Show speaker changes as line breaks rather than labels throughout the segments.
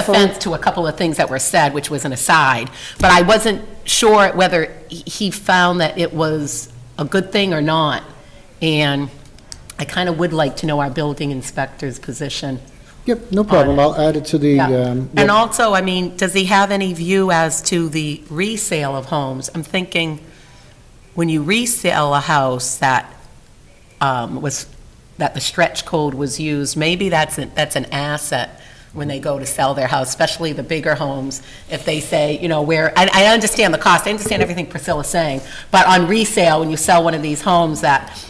offense to a couple of things that were said, which was an aside, but I wasn't sure whether he- he found that it was a good thing or not. And I kind of would like to know our building inspector's position.
Yep, no problem. I'll add it to the,
Yeah.
um,
And
yep.
also, I mean, does he have any view as to the resale of homes? I'm thinking, when you resell a house that um, was, that the stretch code was used, maybe that's, an- that's an asset when they go to sell their house, especially the bigger homes, if they say, you know, where, I, I understand the cost, I understand everything Priscilla's saying, but on resale, when you sell one of these homes that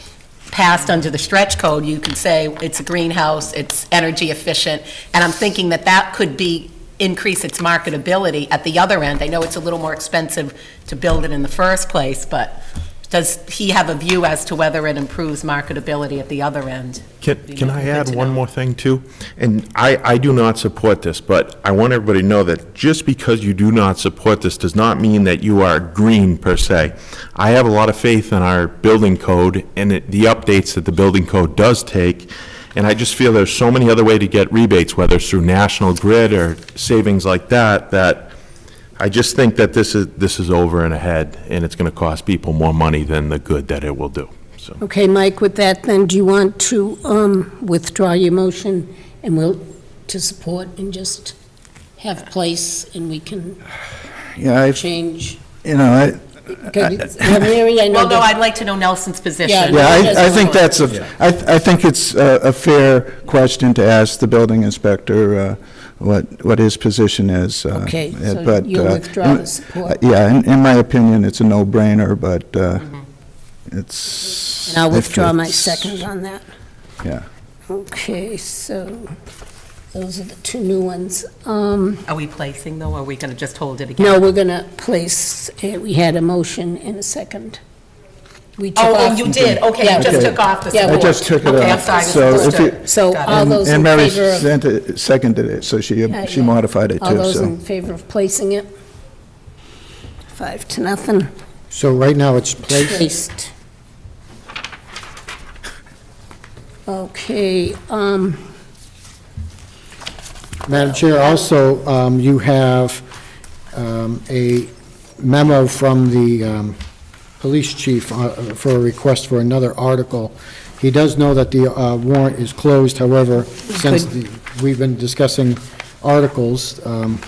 passed under the stretch code, you can say it's a greenhouse, it's energy efficient, and I'm thinking that that could be, increase its marketability at the other end. I know it's a little more expensive to build it in the first place, but does he have a view as to whether it improves marketability at the other end?
Can,
You
can
know,
I
good
add
to
one
know.
more thing, too?
And I, I do not support this, but I want everybody to know that just because you do not support this does not mean that you are green per se. I have a lot of faith in our building code and it- the updates that the building code does take. And I just feel there's so many other way to get rebates, whether it's through National Grid or savings like that, that I just think that this is, this is over and ahead and it's going to cost people more money than the good that it will do, so.
Okay, Mike, with that, then, do you want to um, withdraw your motion and we'll, to support and just have place and we can
Yeah, I,
change?
you know, I,
Okay, now, Mary, I know
Well, no,
that,
I'd like to know Nelson's position.
yeah,
Yes,
I, I
it's
think
fine.
that's a, I, I think it's a, a fair question to ask the building inspector, uh, what, what his position is. uh,
Okay,
uh,
so
but,
you'll
uh,
withdraw the
in-
support.
uh, Yeah, in, in my opinion, it's a no-brainer, but, uh, it's.
Mm-hmm. and I'll
if
withdraw my
it's-
second on that.
Yeah.
Okay, so, those are the two new ones. Um,
Are we placing though, or are we going to just hold it again?
No, we're going to place, uh, we had a motion and a second. We took
Oh,
off.
oh, you did, okay, you just
Okay.
took off the
Yeah,
support.
I just took it
Okay, I'm
off.
sorry,
So if you-
misunderstood.
So
Got it.
all
And-
those in
And Mary
favor of-
sent it- seconded it, so she,
Yeah,
she
yeah.
modified it
All
too,
those
so.
in favor of placing it? Five to nothing,
So right now it's placed.
placed. Okay, um,
Madam Chair, also, um, you have um, a memo from the um, police chief uh, for a request for another article. He does know that the uh, warrant is closed, however, since the- we've been discussing articles, um,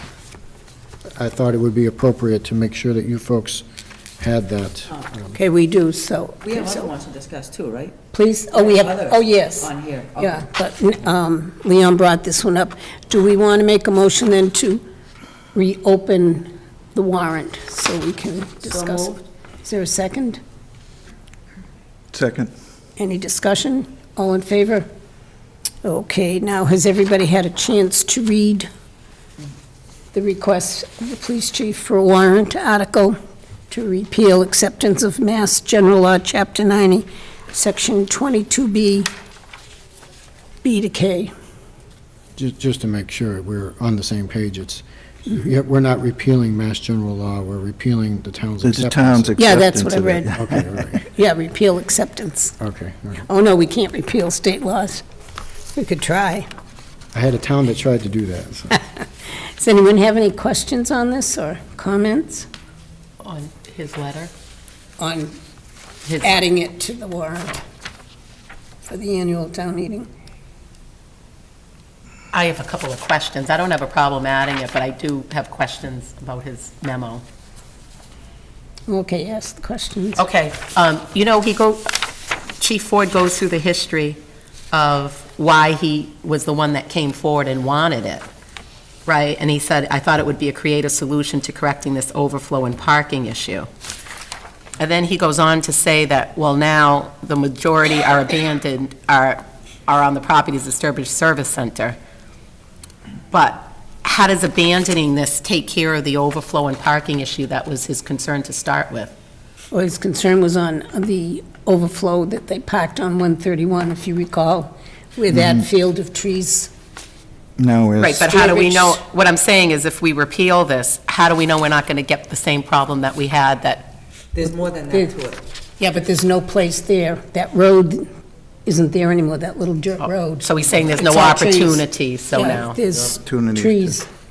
I thought it would be appropriate to make sure that you folks had that.
okay, we do, so.
We have other ones to discuss too, right?
Please, oh, we have,
Others
oh, yes.
On here. okay.
Yeah, but um, Leon brought this one up. Do we want to make a motion then to reopen the warrant so we can discuss? it? Is there a second?
Second.
Any discussion? All in favor? Okay, now, has everybody had a chance to read the request of the police chief for a warrant article to repeal acceptance of Mass General Law, Chapter 90, Section 22B, B to K?
Ju- Just to make sure we're on the same page, it's, yeah, we're not repealing Mass General Law, we're repealing the town's
The the
acceptance.
town's acceptance
Yeah, that's what I
of it.
read.
Okay, all right,
Yeah, repeal acceptance.
okay. all right.
Oh, no, we can't repeal state laws. We could try.
I had a town that tried to do that, so.
Does anyone have any questions on this or comments
On his letter,
on
his
adding it to the warrant for the annual town meeting?
I have a couple of questions. I don't have a problem adding it, but I do have questions about his memo.
Okay, ask the questions.
Okay, um, you know, he go, Chief Ford goes through the history of why he was the one that came forward and wanted it, right? And he said, I thought it would be a creative solution to correcting this overflow and parking issue. And then he goes on to say that, well, now the majority are abandoned, are, are on the property's disturbed service center. But how does abandoning this take care of the overflow and parking issue that was his concern to start with?
Well, his concern was on the overflow that they packed on 131, if you recall, with that field of trees.
Now is.
Right, but how do we know,
Districts.
what I'm saying is if we repeal this, how do we know we're not going to get the same problem that we had that,
There's more than
There-
that to it.
Yeah, but there's no place there. That road isn't there anymore, that little dirt road.
so he's saying there's no
It's all trees.
opportunity, so
Yeah,
now.
There's
Opportunity to-
trees.